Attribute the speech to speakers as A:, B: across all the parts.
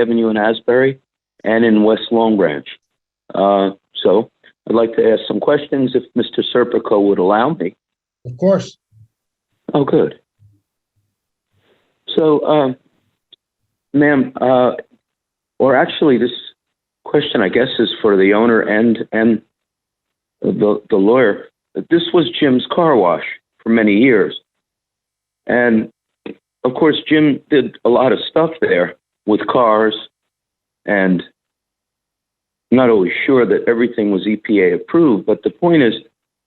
A: Avenue in Asbury and in West Long Branch. Uh, So I'd like to ask some questions if Mr. Serpico would allow me.
B: Of course.
A: Oh, good. So, um, ma'am, uh, or actually, this question, I guess, is for the owner and and the the lawyer. This was Jim's car wash for many years, and of course, Jim did a lot of stuff there with cars, and I'm not always sure that everything was EPA approved. But the point is,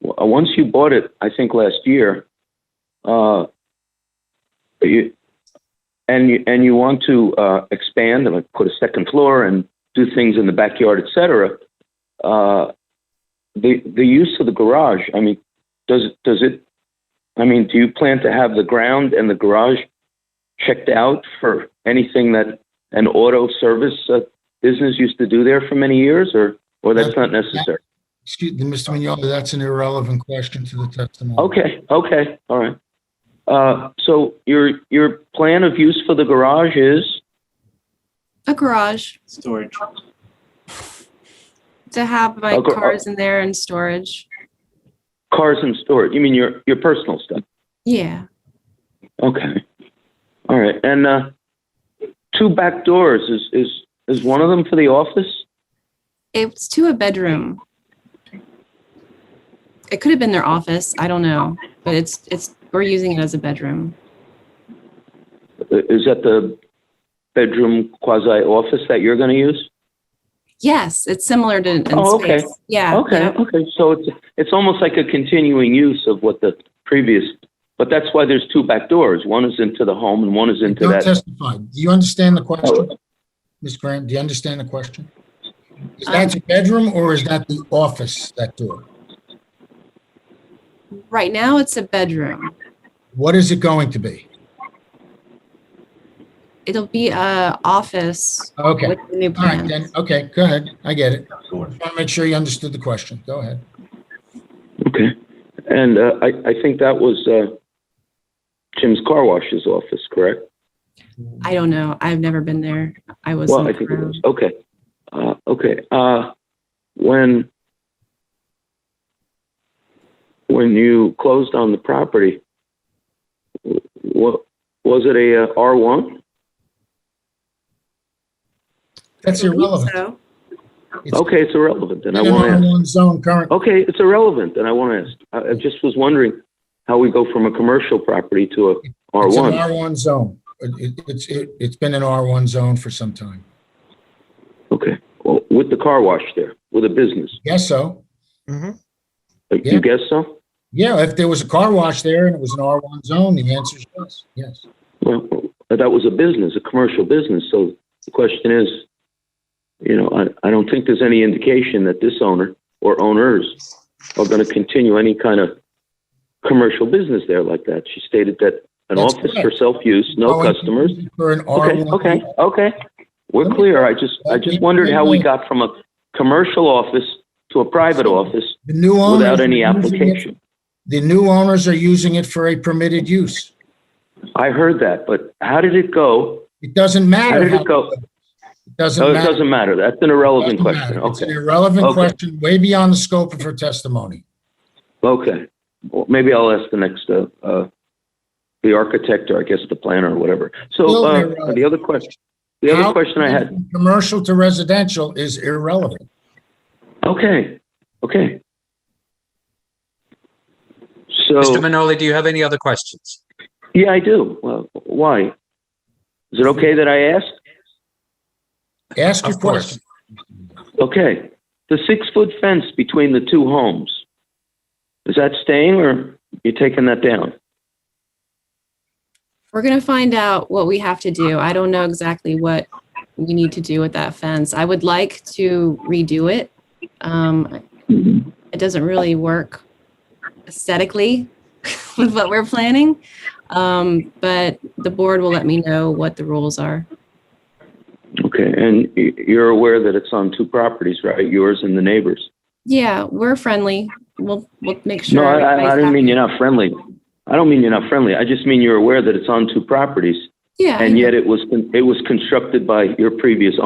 A: w- Uh, once you bought it, I think last year, uh, you, and you, and you want to uh, expand and like, put a second floor and do things in the backyard, et cetera, uh, the the use of the garage. I mean, does does it? I mean, do you plan to have the ground and the garage checked out for anything that an auto service uh, business used to do there for many years, or or that's not necessary?
B: Excuse me, Mr. Mignola, that's an irrelevant question to the testimony.
A: Okay, okay, all right. Uh, so your, your plan of use for the garage is,
C: A garage
D: Storage.
C: to have my
A: A gar-
C: cars in there and storage.
A: cars and storage, you mean your, your personal stuff?
C: Yeah.
A: Okay, all right, and, uh, two back doors, is, is, is one of them for the office?
C: It's to a bedroom. It could have been their office. I don't know, but it's it's we're using it as a bedroom.
A: I- Is that the bedroom quasi office that you're gonna use?
C: Yes, it's similar to in
A: Oh, okay.
C: space. Yeah.
A: Okay,
C: yeah.
A: okay, so it's, it's almost like a continuing use of what the previous, but that's why there's two back doors, one is into the home and one is into
B: Don't
A: that.
B: testify. Do you understand the question,
A: Oh,
B: Ms. Grant? Do you understand the question? Is
C: Um,
B: that your bedroom or is that the office, that door?
C: Right now it's a bedroom.
B: What is it going to be?
C: It'll be a office
B: Okay,
C: with the new
B: all right,
C: plans.
B: then, okay, go ahead. I get it.
D: Storage.
B: I want to make sure you understood the question. Go ahead.
A: Okay. And uh, I, I think that was uh, Jim's car wash's office, correct?
C: I don't know. I've never been there. I was
A: Well, I think it was. Okay. Uh, okay. Uh, when when you closed on the property, what was it a uh, R one?
B: That's irrelevant.
C: So,
B: It's
A: Okay, it's irrelevant, and I
B: in an
A: want to ask.
B: R1 zone currently.
A: Okay, it's irrelevant, and I want to ask. I, I just was wondering how we go from a commercial property to a Oh, R
B: It's an
A: one.
B: R1 zone. It- it- It's, it- it's been an R1 zone for some time.
A: Okay, well, with the car wash there, with a business.
B: Yes, so? Yeah.
A: You guess so?
B: Yeah, if there was a car wash there and it was an R1 zone, the answer is yes, yes.
A: Well, that was a business, a commercial business. So the question is, you know, I, I don't think there's any indication that this owner or owners are going to continue any kind of commercial business there like that. She stated that an
B: That's
A: office for
B: correct.
A: self-use, no
B: Going
A: customers.
B: For an
A: Okay,
B: R1.
A: okay, okay. We're
B: Let me-
A: clear. I just, I just wondered how we got from a commercial office to a private office
B: The new owners.
A: without
B: are
A: any
B: using it-
A: application.
B: The new owners are using it for a permitted use.
A: I heard that, but how did it go?
B: It doesn't
A: How
B: matter.
A: did
B: how-
A: it go?
B: It doesn't
A: Oh, it
B: matter.
A: doesn't matter. That's an
B: It
A: irrelevant
B: doesn't
A: question.
B: matter. It's an
A: Okay.
B: irrelevant
A: Okay.
B: question, way beyond the scope of her testimony.
A: Okay. Well, maybe I'll ask the next, uh, uh, the architect or I guess the planner or whatever. So,
B: Still
A: uh,
B: irrelevant.
A: the other question, the other
B: How-
A: question I had,
B: Commercial to residential is irrelevant.
A: okay, okay.
E: Mr.
A: So,
E: Manoli, do you have any other questions?
A: yeah, I do. Well, why? Is it okay that I ask?
B: Ask your
E: Of course.
B: question.
A: Okay. The six foot fence between the two homes, is that staying or you taking that down?
C: We're gonna find out what we have to do. I don't know exactly what we need to do with that fence. I would like to redo it. Um,
B: Mm-hmm.
C: it doesn't really work aesthetically with what we're planning. Um, but the board will let me know what the rules are.
A: Okay. And y- you're aware that it's on two properties, right? Yours and the neighbors?
C: Yeah, we're friendly. We'll, we'll make sure.
A: No, I, I, I
C: everybody's
A: didn't mean
C: happy.
A: you're not friendly. I don't mean you're not friendly. I just mean you're aware that it's on two properties
C: Yeah. I
A: and yet it was, it was constructed by your previous